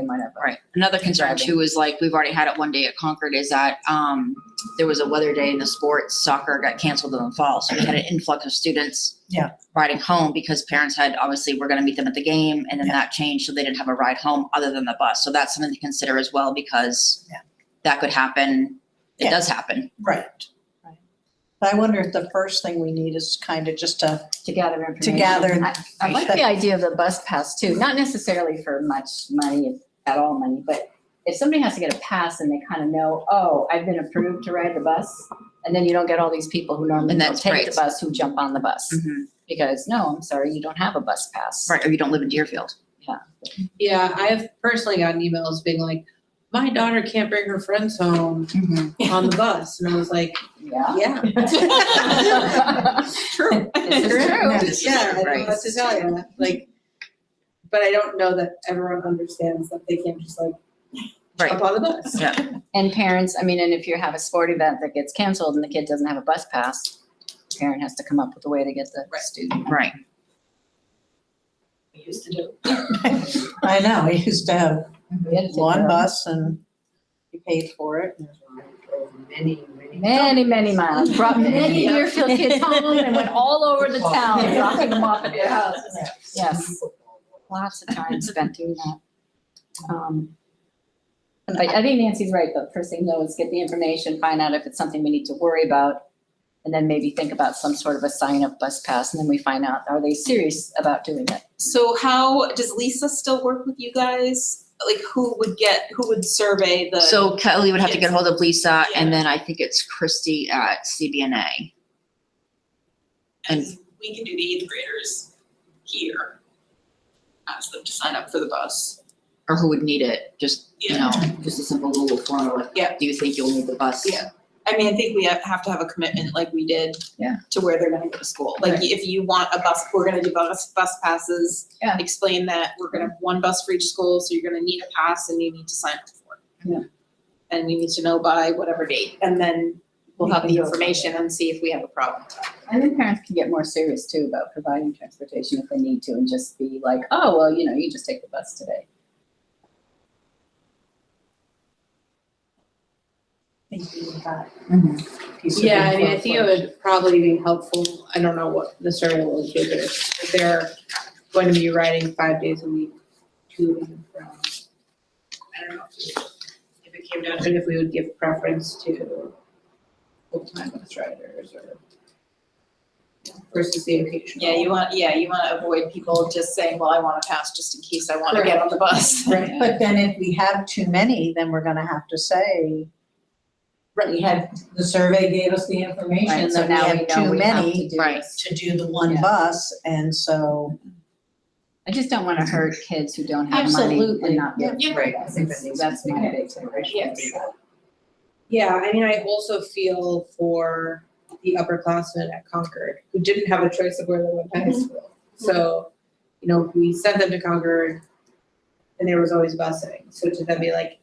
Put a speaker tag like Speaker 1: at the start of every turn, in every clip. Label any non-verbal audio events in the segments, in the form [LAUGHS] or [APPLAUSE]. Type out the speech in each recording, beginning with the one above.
Speaker 1: they might have. a-
Speaker 2: Right. Another concern
Speaker 1: Driving.
Speaker 2: too is like, we've already had it one day at Concord is that, um, there was a weather day in the sports soccer got canceled in the fall. So we had an influx of students.
Speaker 1: Yeah.
Speaker 2: Riding home because parents had, obviously, we're gonna meet them at the game and then
Speaker 1: Yeah.
Speaker 2: that changed. So they didn't have a ride home other than the bus. So that's something to consider as well because
Speaker 1: Yeah.
Speaker 2: that could happen. It
Speaker 1: Yeah.
Speaker 2: does happen.
Speaker 1: Right. Right. But I wonder if the first thing we need is kind of just a,
Speaker 3: to gather
Speaker 1: to
Speaker 3: information.
Speaker 1: gather.
Speaker 3: I- I like the idea of the bus pass too, not necessarily for much money, at all money, but if somebody has to get a pass and they kind of know, oh, I've been approved to ride the bus, and then you don't get all these people who normally
Speaker 2: And
Speaker 3: don't
Speaker 2: that's
Speaker 3: take
Speaker 2: right.
Speaker 3: the bus who jump on the bus.
Speaker 1: Mm-hmm.
Speaker 2: Mhm.
Speaker 3: Because, no, I'm sorry, you don't have a bus pass.
Speaker 2: Right, or you don't live in Deerfield.
Speaker 4: Yeah, I've personally gotten emails being like, my daughter can't bring her friends home
Speaker 1: Mm-hmm.
Speaker 4: on the bus. And I was like,
Speaker 2: [LAUGHS]
Speaker 3: Yeah.
Speaker 5: [LAUGHS]
Speaker 4: yeah. [LAUGHS] True.
Speaker 3: This is true.
Speaker 4: Yeah,
Speaker 2: Right.
Speaker 4: I don't know what to tell you. Like, but I don't know that everyone understands that they can't just like
Speaker 2: Right.
Speaker 4: jump on the bus.
Speaker 2: Yeah.
Speaker 3: And parents, I mean, and if you have a sport event that gets canceled and the kid doesn't have a bus pass, the parent has to come up with a way to get the
Speaker 4: Right.
Speaker 3: student.
Speaker 2: Right.
Speaker 4: We used to do.
Speaker 1: I know, we used to have
Speaker 3: We had to take
Speaker 1: one
Speaker 3: the-
Speaker 1: bus and you paid for it.
Speaker 6: Many, many.
Speaker 3: Many, many miles, [LAUGHS] brought many Deerfield kids home and went all over the town, dropping them off at their house. [LAUGHS] Yes, lots of time spent doing that. Um, But I think Nancy's right, the first thing though is get the information, find out if it's something we need to worry about. And then maybe think about some sort of a sign up bus pass, and then we find out, are they serious about doing it?
Speaker 5: So how does Lisa still work with you guys? Like who would get who would survey the
Speaker 2: So Kelly would have to get
Speaker 5: Yes.
Speaker 2: hold of Lisa and
Speaker 5: Yeah.
Speaker 2: then I think it's Christy at CBNA. And
Speaker 5: we can do the eighth graders here. Ask them to sign up for the bus.
Speaker 2: or who would need it, just, you know,
Speaker 5: Yeah.
Speaker 2: just a simple Google form or like,
Speaker 5: Yeah.
Speaker 2: do you think you'll need the bus?
Speaker 5: Yeah. I mean, I think we have- have to have a commitment like we did
Speaker 2: Yeah.
Speaker 5: to where they're gonna go to school. Like if you want a bus, we're gonna do bus bus passes.
Speaker 3: Yeah.
Speaker 5: Explain that we're gonna have one bus for each school, so you're gonna need a pass and you need to sign up for it.
Speaker 3: Yeah.
Speaker 5: And you need to know by whatever date and then we'll have
Speaker 3: We
Speaker 5: the
Speaker 3: can go from
Speaker 5: information and see if we have a problem.
Speaker 3: And then parents can get more serious too about providing transportation if they need to and just be like, oh, well, you know, you just take the bus today.
Speaker 1: Mm-hmm.
Speaker 4: Yeah, I mean, I think it would probably be helpful. I don't know what the survey will give it. If they're going to be riding five days a week to and from. I don't know. if it- If it came down to if we would give preference to full-time bus riders or versus the occasional.
Speaker 5: Yeah, you want, yeah, you wanna avoid people just saying, well, I want a pass just in case I wanna get on the bus.
Speaker 4: Right.
Speaker 1: But then if we have too many, then we're gonna have to say, we had, the survey gave us the information
Speaker 3: Right, so
Speaker 1: that we
Speaker 3: now we
Speaker 1: have
Speaker 3: know
Speaker 1: too
Speaker 3: we have
Speaker 1: many
Speaker 3: to do
Speaker 2: right.
Speaker 3: this.
Speaker 1: to do the one
Speaker 3: Yeah.
Speaker 1: bus, and so.
Speaker 3: I just don't want to hurt kids who don't have money
Speaker 1: Absolutely.
Speaker 3: and not. be able to
Speaker 5: Yeah.
Speaker 3: afford us. It's- That's my big concern.
Speaker 4: Yes. Yeah, I mean, I also feel for the upperclassmen at Concord who didn't have a choice of where they went to high school. So, you know, we sent them to Concord and there was always busing. So to then be like,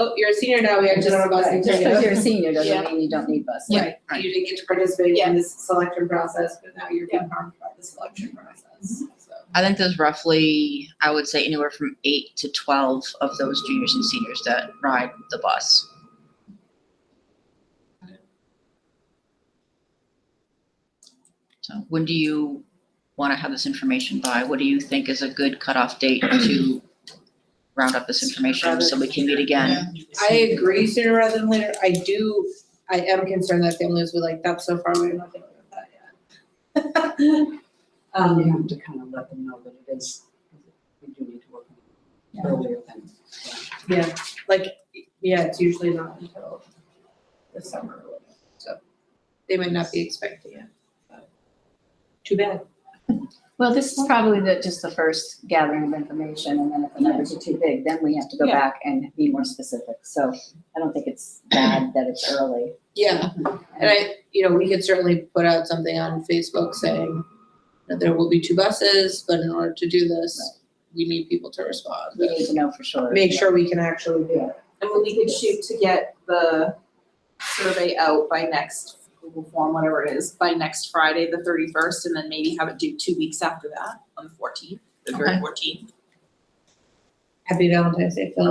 Speaker 4: oh, you're a senior now, we actually don't have busing.
Speaker 3: Just because you're a senior
Speaker 4: Yeah.
Speaker 3: doesn't mean you don't need bus.
Speaker 4: Right,
Speaker 2: right.
Speaker 4: you didn't get to participate in this selection process, but now you're being harmed by the selection process, so.
Speaker 2: I think there's roughly, I would say anywhere from eight to twelve of those juniors and seniors that ride the bus. So when do you want to have this information by? What do you think is a good cutoff date to round up this information so we can meet again?
Speaker 4: I agree sooner rather than later. I do, I am concerned that families would like, that's so far away, I'm not dealing with that yet. [LAUGHS]
Speaker 6: Um, you
Speaker 4: Um,
Speaker 6: have to kind of let them know that it is, we do need to work on it earlier than. uh,
Speaker 4: yeah, like, yeah, it's usually not until the summer, or whatever, so they might not be expecting it. but Too bad.
Speaker 3: Well, this is probably the, just the first gathering of information, and then if the numbers are too big, then we have to go
Speaker 5: Yeah.
Speaker 3: back and be more specific. So I don't think it's bad that it's early.
Speaker 4: Yeah, and I, you know, we could certainly put out something on Facebook saying that there will be two buses, but in order to do this, we need people to respond.
Speaker 3: We need to know for sure.
Speaker 4: Make sure we can actually do it.
Speaker 5: And we could shoot to get the survey out by next Google form, whatever it is, by next Friday, the thirty-first, and then maybe have it due two weeks after that, on the fourteenth, the
Speaker 2: Okay.
Speaker 5: very fourteenth.
Speaker 4: Happy Valentine's Day, Phil.